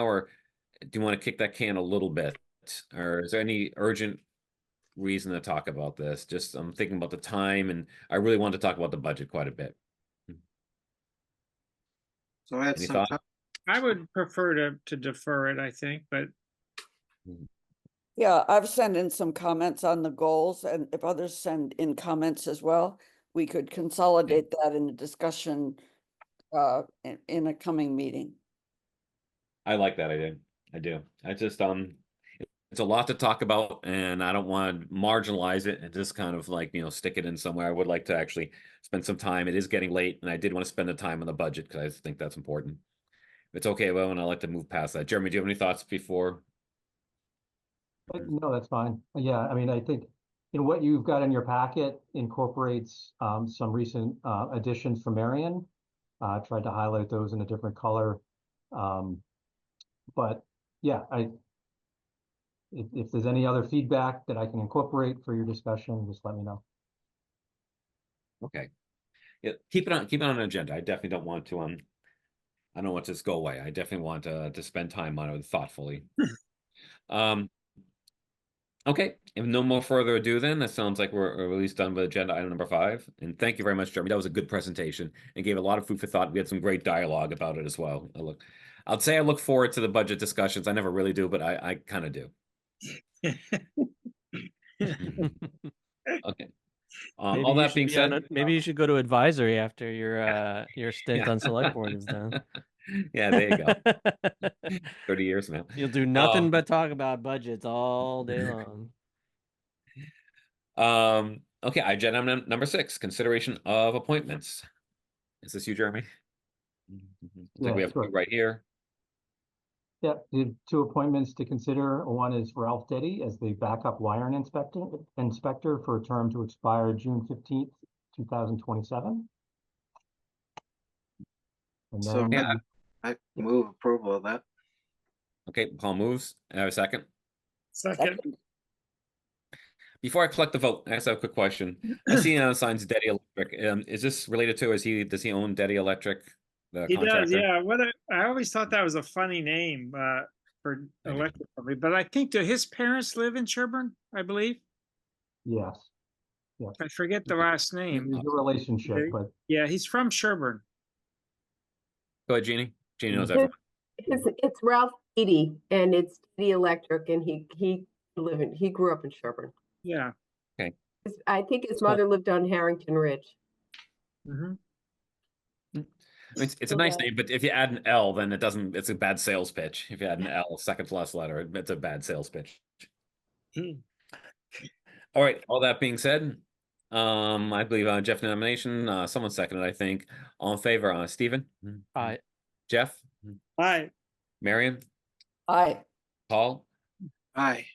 Or do you want to kick that can a little bit? Or is there any urgent reason to talk about this? Just I'm thinking about the time and I really want to talk about the budget quite a bit. So I had Any some, thought? time- I would prefer to, to defer it, I think, but Yeah, I've sent in some comments on the goals and if others send in comments as well, we could consolidate that in a discussion uh, in, in a coming meeting. I like that idea. I do. I just, um, it's a lot to talk about and I don't want to marginalize it and just kind of like, you know, stick it in somewhere. I would like to actually spend some time. It is getting late and I did want to spend the time on the budget because I just think that's important. If It's okay, well, and I'd like to move past that. Jeremy, do you have any thoughts before? Uh, No, that's fine. Yeah, I mean, I think in what you've got in your packet incorporates um, some recent uh, additions from Marion. Uh, I tried to highlight those in a different color. Um, But yeah, I, if, if there's any other feedback that I can incorporate for your discussion, just let me know. Okay. Yeah, keep it on, keep it on an agenda. I definitely don't want to, um, I don't want to just go away. I definitely want uh, to, to spend time on it thoughtfully. Um, okay, if no more further ado then, that sounds like we're, we're at least done with agenda item number five. And thank you very much, Jeremy. That was a good presentation and gave a lot of food for thought. We had some great dialogue about it as well. I look, I'd say I look forward to the budget discussions. I never really do, but I, I kind of do. Okay. Um, Maybe all you that should being be on said. uh a- Maybe you should go to advisory after your, Yeah. uh, your stint on select board is done. Yeah, there you go. 30 years now. You'll do nothing Um, but talk about budgets all day long. Um, okay, agenda num- number six, consideration of appointments. Is this you, Jeremy? Mm-hmm. I think we Yeah, have two sure. right here. Yeah, you have two appointments to consider. One is Ralph Deddy as the backup wiring inspector, inspector for a term to expire June fifteenth, two thousand twenty-seven. And so then, Yeah. I move approval of that. Okay, Paul moves. I have a second. second, Second. Before I collect the vote, I just have a quick question. I see now signs Daddy Electric. Um, is this related to, is he, does he own Daddy Electric? The he does, contractor? yeah, whether, I always thought that was a funny name, uh, for I do. electric company, but I think, do his parents live in Sherburne, I believe? yes, I forget the last there's name. a relationship, Okay. but Yeah, he's from Sherburne. Go ahead, Jeannie. Jeannie knows Mhm. everyone. It's, it's Ralph Eady and it's the electric and he, he lived in, he grew up in Sherburne. Yeah. His- I think his Cool. mother lived on Harrington Ridge. mhm. I mean, It's, it's a nice name, but if you add an L, then it doesn't, it's a bad sales pitch. If you add an L, second to last letter, it's a bad sales pitch. Hmm. All right, all that being said, um, I believe uh, Jeff nomination, uh, someone seconded, I think, all in favor, uh, Stephen? Aye. Jeff, Hi, Marion, Aye, Paul, Aye,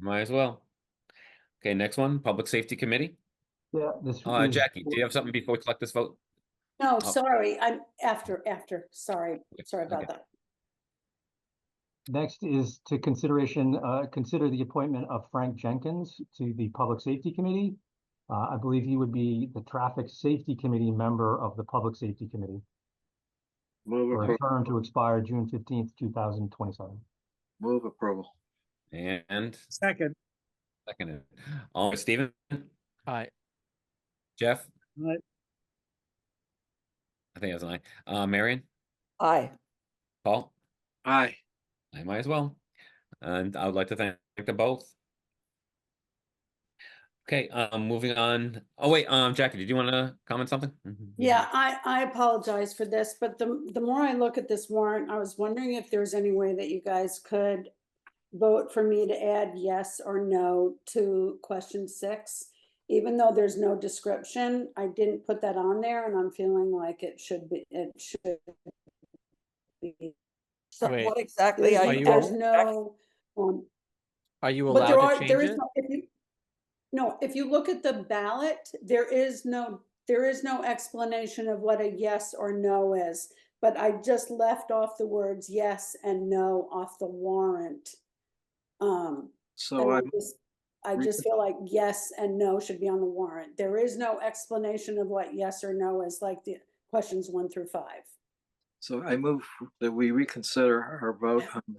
might as well. Okay, next one, Public Safety Committee. yeah, this. Uh, is- Jackie, do you have something before we collect this vote? No, Oh. sorry, I'm after, after, sorry, sorry okay. about that. Next is to consideration, uh, consider the appointment of Frank Jenkins to the Public Safety Committee. Uh, I believe he would be the Traffic Safety Committee member of the Public Safety Committee move for a approval, term to expire June fifteenth, two thousand twenty-seven. move approval. And second, seconded, all, Stephen, Hi, Jeff? Aye. I think it was an aye. Uh, Marion, aye. Paul? Aye, I might as well. And I would like to thank them both. Okay, um, moving on. Oh, wait, um, Jackie, did you want to comment something? Yeah, I, I apologize for this, but the, the more I look at this warrant, I was wondering if there's any way that you guys could vote for me to add yes or no to question six. Even though there's no description, I didn't put that on there and I'm feeling like it should be, it should be. So Wait. what exactly? Are There's you- there's no, um, are you But there allowed are, to there change is, it? no- if you, no, if you look at the ballot, there is no, there is no explanation of what a yes or no is. But I just left off the words yes and no off the warrant. Um, so and I I, just, I re- just feel like yes and no should be on the warrant. There is no explanation of what yes or no is like the questions one through five. So I move that we reconsider our vote on